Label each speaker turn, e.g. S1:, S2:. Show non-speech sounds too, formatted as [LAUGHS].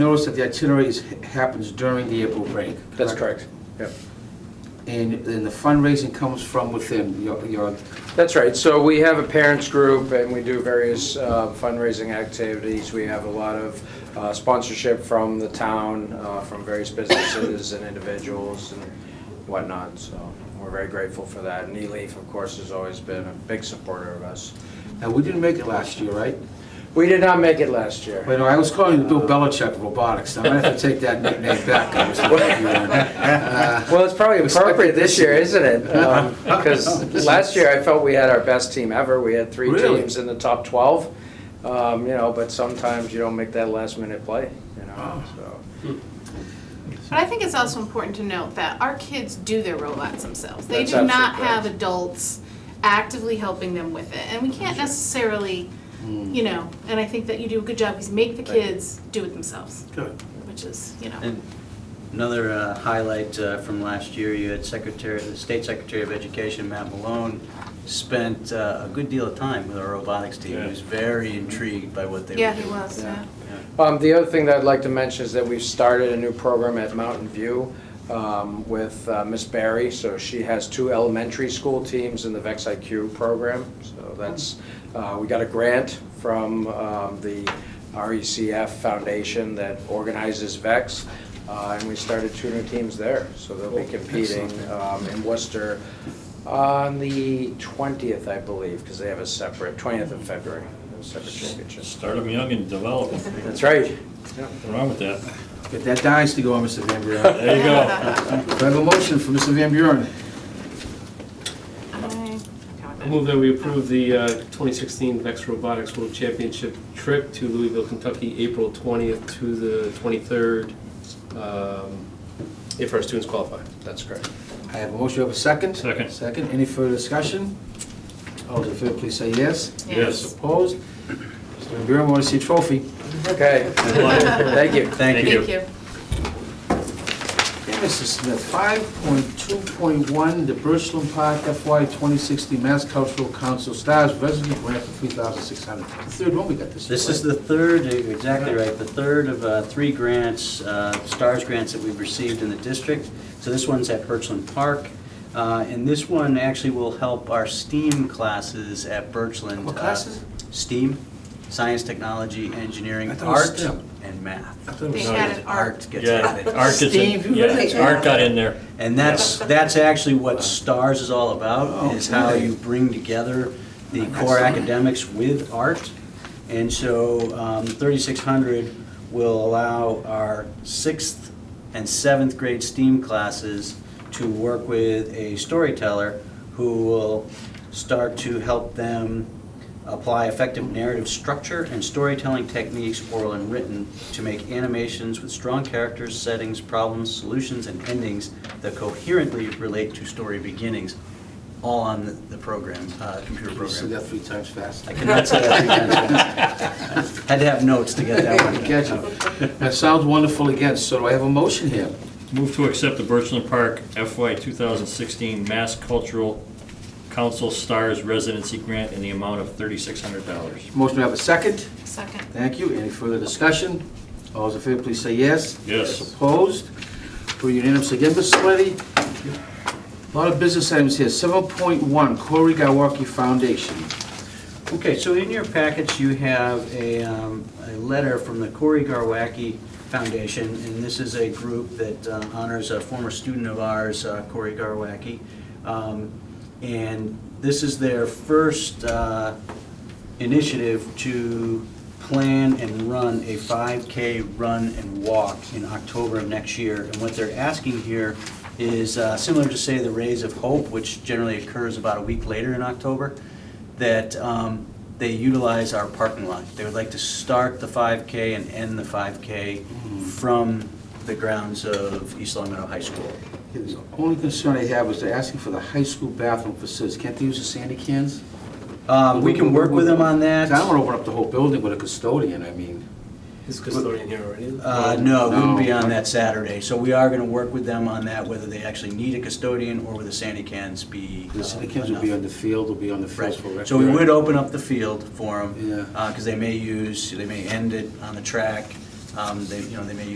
S1: Notice that the itinerary is- happens during the April break.
S2: That's correct. Yep.
S1: And, and the fundraising comes from within your, your,
S2: That's right. So we have a parents group and we do various uh, fundraising activities. We have a lot of uh, sponsorship from the town, uh, from various businesses and individuals and whatnot. So we're very grateful for that. And Eleaf, of course, has always been a big supporter of us.
S1: now, we didn't make it last year, right?
S2: We did not make it last year.
S1: Wait, no, I was calling you Bill Belichick of robotics. I'm gonna have to take that nickname back. I was thinking of you. Uh,
S2: Well, it's probably appropriate this year, isn't it? [LAUGHS] Because last year, I felt we had our best team ever. We had three
S1: Really?
S2: teams in the top 12. Um, You know, but sometimes you don't make that last minute play, you know, so.
S3: But I think it's also important to note that our kids do their robots themselves. They
S2: That's
S3: do not
S2: absolutely
S3: have
S2: correct.
S3: adults actively helping them with it. And we can't necessarily, you know, and I think that you do a good job is make the
S2: Thank you.
S3: kids do it themselves,
S1: Good.
S3: which is, you know.
S4: And another uh, highlight uh, from last year, you had Secretary, the State Secretary of Education, Matt Malone, spent uh, a good deal of time with our robotics team. He was very intrigued by what they were
S3: Yeah,
S4: doing.
S3: he was,
S2: Yeah.
S3: yeah.
S2: Um, The other thing that I'd like to mention is that we've started a new program at Mountain View um, with uh, Miss Barry. So she has two elementary school teams in the VEX IQ program. So that's, uh, we got a grant from um, the RECF Foundation that organizes VEX. uh, And we started two new teams there. So they'll be competing um, in Worcester on the 20th, I believe, because they have a separate, 20th of February, a separate championship.
S5: Start them young and develop them.
S2: That's right.
S5: Nothing wrong with that.
S1: Get that dice to go on, Mr. Van Buren.
S5: There you go.
S1: Do I have a motion for Mr. Van Buren?
S3: I-
S6: I move that we approve the uh, 2016 VEX Robotics World Championship trip to Louisville, Kentucky, April 20th to the 23rd, um, if our students qualify.
S2: That's correct.
S1: I have a motion, Do I have a second?
S5: Second.
S1: Second, any further discussion? All those in favor, please say yes.
S5: Yes.
S1: Opposed? Mr. Van Buren, want to see a trophy?
S2: Okay, thank you.
S4: Thank you.
S3: Thank you.
S1: Okay, Mr. Smith, five point two point one, the Birchland Park FY twenty sixty Mass Cultural Council Stars Resident Grant for three thousand six hundred. Third one we got this. year,
S4: This is
S1: right?
S4: the third, exactly right, the third of uh, three grants, uh, STARS grants that we've received in the district. So this one's at Birchland Park. Uh, And this one actually will help our STEAM classes at Birchland.
S1: What
S4: uh,
S1: classes?
S4: STEAM, science, technology, engineering,
S1: I thought it was
S4: art,
S1: STEM.
S4: and math.
S1: I thought it was-
S3: They added art.
S4: Art gets added.
S5: Yeah, Art gets
S1: Steve,
S5: in,
S1: you really-
S5: yeah, Art got in there.
S4: And that's, that's actually what STARS is all about,
S1: Oh,
S4: is how
S1: okay.
S4: you bring together the core
S1: Excellent.
S4: academics with art. And so um, 3600 will allow our sixth and seventh grade STEAM classes to work with a storyteller who will start to help them apply effective narrative structure and storytelling techniques, oral and written, to make animations with strong characters, settings, problems, solutions, and endings that coherently relate to story beginnings, all on the- the program, uh, computer
S1: You said
S4: program.
S1: that three times fast.
S4: I cannot say that again. Had to have notes to get that
S1: [LAUGHS]
S4: one.
S1: Catch it. That sounds wonderful again, so do I have a motion here?
S5: Move to accept the Birchland Park FY 2016 Mass Cultural Council Stars Residency Grant in the amount of $3,600.
S1: Motion, do I have a second?
S3: Second.
S1: Thank you. Any further discussion? All those in favor, please say yes.
S5: Yes.
S1: Opposed? For unanimous again, Mr. Sweaty. A lot of business items here. Seven point one, Corey Gawaki Foundation.
S4: Okay, so in your packets, you have a, um, a letter from the Corey Garwacki Foundation, and this is a group that uh, honors a former student of ours, uh, Corey Garwacki. Um, And this is their first uh, initiative to plan and run a 5K run and walk in October of next year. And what they're asking here is uh, similar to, say, the Rays of Hope, which generally occurs about a week later in October that um, they utilize our parking lot. They would like to start the 5K and end the 5K from the grounds of East Long Meadow High School.
S1: The only concern I have is they're asking for the high school bathroom facilities. Can't they use the sandy cans?
S4: Um, We can work with them on
S1: I
S4: that.
S1: don't want to open up the whole building with a custodian, I mean.
S6: Is custodian here already?
S4: Uh, No, it wouldn't be
S1: No.
S4: on that Saturday. So we are going to work with them on that, whether they actually need a custodian or whether sandy cans be
S1: The
S4: uh,
S1: sandy cans will be on
S4: enough.
S1: the field, will be on the field for
S4: Right. So we would open up the field for uh,
S1: Yeah.
S4: them, because they may use, they may end it on the track. Um, They, you know, they may